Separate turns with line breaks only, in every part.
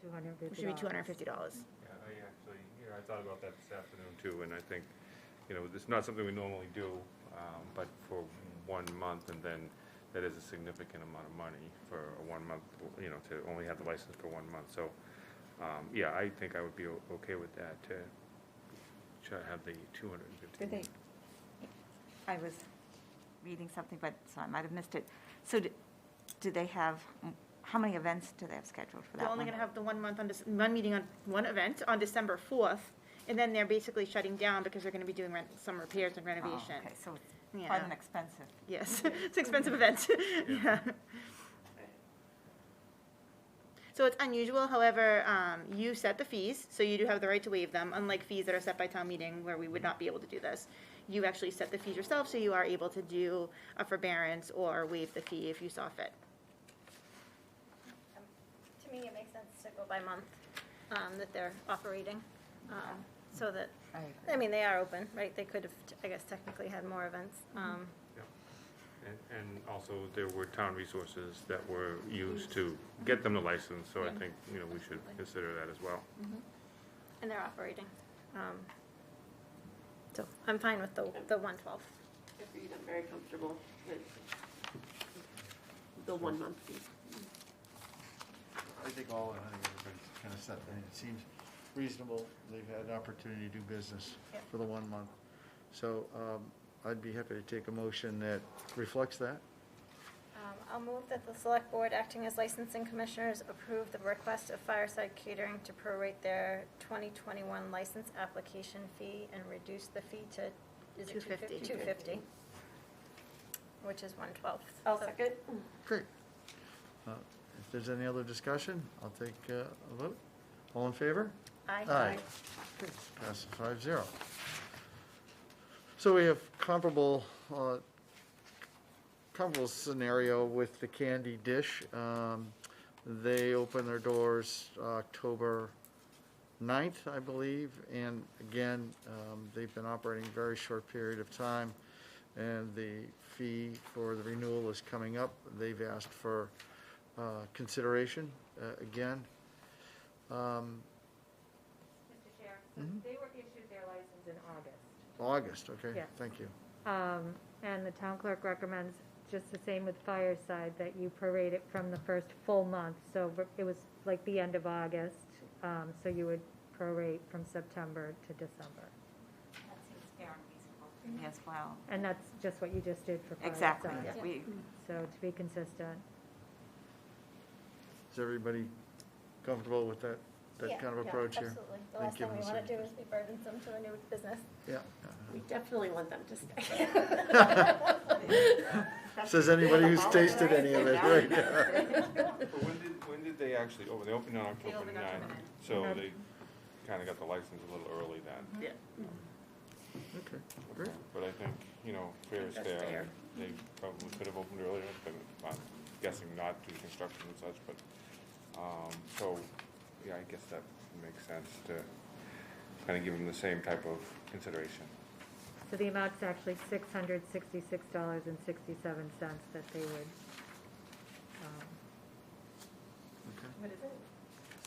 two hundred fifty.
which would be two hundred and fifty dollars.
Yeah, I actually, you know, I thought about that this afternoon too, and I think, you know, it's not something we normally do, um, but for one month, and then that is a significant amount of money for a one month, you know, to only have the license for one month, so, um, yeah, I think I would be o- okay with that, to, to have the two hundred and fifty.
Did they, I was reading something, but, so I might have missed it. So do, do they have, how many events do they have scheduled for that
They're
one?
only gonna have the one month on, Dec- one meeting on, one event on December fourth, and then they're basically shutting down because they're gonna be doing ren- some repairs and
Oh,
renovation.
Okay, so it's quite
Yeah.
an expensive.
Yes, it's an expensive event, yeah. So it's unusual, however, um, you set the fees, so you do have the right to waive them, unlike fees that are set by town meeting where we would not be able to do this. You actually set the fees yourself, so you are able to do a forbearance or waive the fee if you saw fit.
Um, To me, it makes sense to go by month um, that they're operating, um, so that, I mean, they are open, right? They could have, I guess technically had more events. um,
And, and also, there were town resources that were used to get them the license, so I think, you know, we should consider that as well.
And they're operating. um, So I'm fine with the, the 112.
Good for you, I'm very comfortable with the one month fee.
I think all, I think everybody's kind of set, I mean, it seems reasonable, they've had an opportunity to do business for the one month. So, um, I'd be happy to take a motion that reflects that.
Um, I'll move that the select board acting as licensing commissioners approve the request of Fireside Catering to prorate their 2021 license application fee and reduce the fee to, is it
250?
250? 250, which is 112.
I'll
So-
second.
Great. Uh, If there's any other discussion, I'll take uh, a vote. All in favor?
Aye.
Okay, Passes five zero. So we have comparable, uh, comparable scenario with the Candy Dish. Um, They open their doors October 9th, I believe, and again, um, they've been operating a very short period of time, and the fee for the renewal is coming up. They've asked for uh, consideration uh, again. Um,
Mr. Chair, so
Mm-hmm.
they were issued their license in August.
August, okay,
Yeah.
thank you.
Um, and the town clerk recommends, just the same with Fireside, that you parade it from the first full month. So it was like the end of August, um, so you would prorate from September to December.
That seems fair and reasonable to me as well.
And that's just what you just did for Fireside.
Exactly, we,
So to be consistent.
Is everybody comfortable with that,
Yeah,
that kind of
yeah,
approach here?
Absolutely. The
Like
last thing
given
we
the
want to do is be burdensome to a new business.
Yeah.
We definitely want them to stay.
Says anybody who's tasted any of it, right?
But when did, when did they actually, open? they opened on October ninth, so they kinda got the license a little early then.
Yeah.
Okay, great.
But I think, you know, fair is
That's
fair,
fair.
they probably could have opened earlier, but I'm guessing not due to construction and such, but, um, so, yeah, I guess that makes sense to kinda give them the same type of consideration.
So the amount's actually six hundred sixty-six dollars and sixty-seven cents that they would, um,
What is it?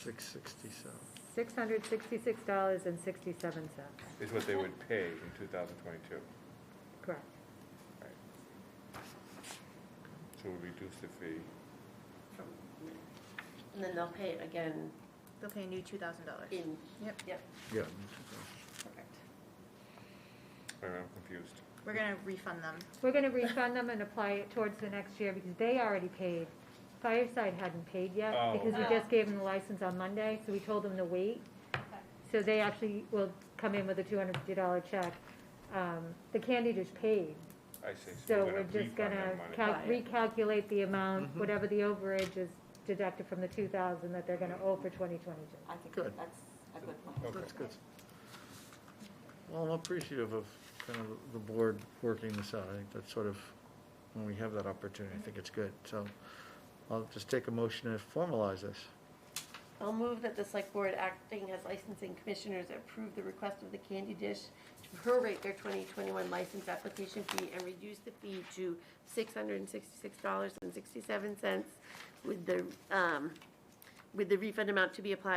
Six sixty-seven.
six hundred sixty-six dollars and sixty-seven cents,
Is what they would pay in two thousand twenty-two.
correct.
So we reduce the fee.
And then they'll pay it again
They'll pay a new two thousand dollars.
in,
Yep.
yep,
Yeah.
perfect.
Wait a minute, I'm confused.
We're gonna refund them.
We're gonna refund them and apply it towards the next year because they already paid. Fireside hadn't paid yet
Oh.
because we just gave them the license on Monday, so we told them to wait. So they actually will come in with a two hundred fifty dollar check. Um, the candy dish paid,
I see.
so
we're
we're
gonna
just
refund
gonna
that money.
cal-
Right.
recalculate the amount, whatever the overage is deducted from the two thousand that they're gonna owe for twenty twenty-two.
I think
Good.
that's a good point.
Okay.
That's good. Well, I'm appreciative of kind of the board working this out. I think that's sort of, when we have that opportunity, I think it's good. So I'll just take a motion to formalize this.
I'll move that the select board acting as licensing commissioners approve the request of the Candy Dish to prorate their 2021 license application fee and reduce the fee to $666.67 with the um, with the refund amount to be applied